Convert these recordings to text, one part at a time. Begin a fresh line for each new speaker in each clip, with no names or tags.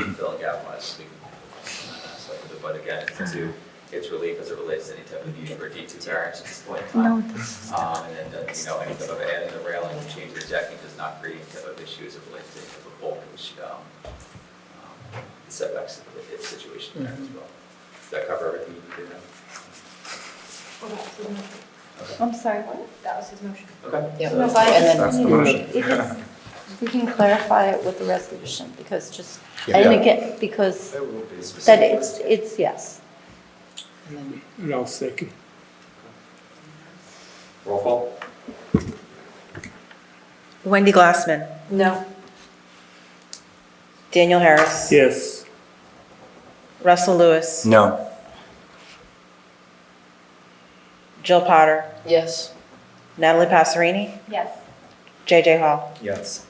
out much, we can, uh, so, but again, it's to, it's relief as it relates to any type of use for D two variance at this point in time.
No, this is,
Um, and then, uh, you know, any type of adding the railing, changing the decking does not create any type of issues as it relates to any type of bulk, which, um, um, setbacks, if- if situation there as well. Does that cover everything you need to know?
Well, that was his motion.
I'm sorry, what?
That was his motion.
Okay.
Yeah.
So-
No, but-
And
That's
then,
the motion.
It is- We can clarify it with the resolution, because just, I
Yeah.
didn't get, because
It will be specific.
that it's, it's yes.
and then
And I'll second.
Roll call?
Wendy Glassman,
No.
Daniel Harris,
Yes.
Russell Lewis,
No.
Jill Potter,
yes,
Natalie Passerini,
Yes.
JJ Hall.
Yes.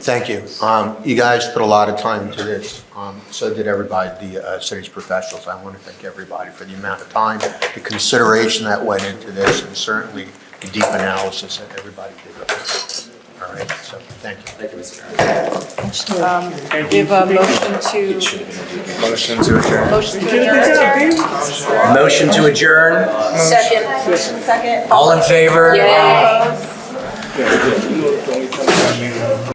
Thank you. Um, You guys put a lot of time into this. Um, So did everybody, the uh, city's professionals. I want to thank everybody for the amount of time, the consideration that went into this, and certainly the deep analysis that everybody did. All right, so thank you.
Thank you, Mr. Chairman.
Um, We have a motion to,
Motion to adjourn.
motion to adjourn.
Motion to adjourn.
second,
All in favor?
yay.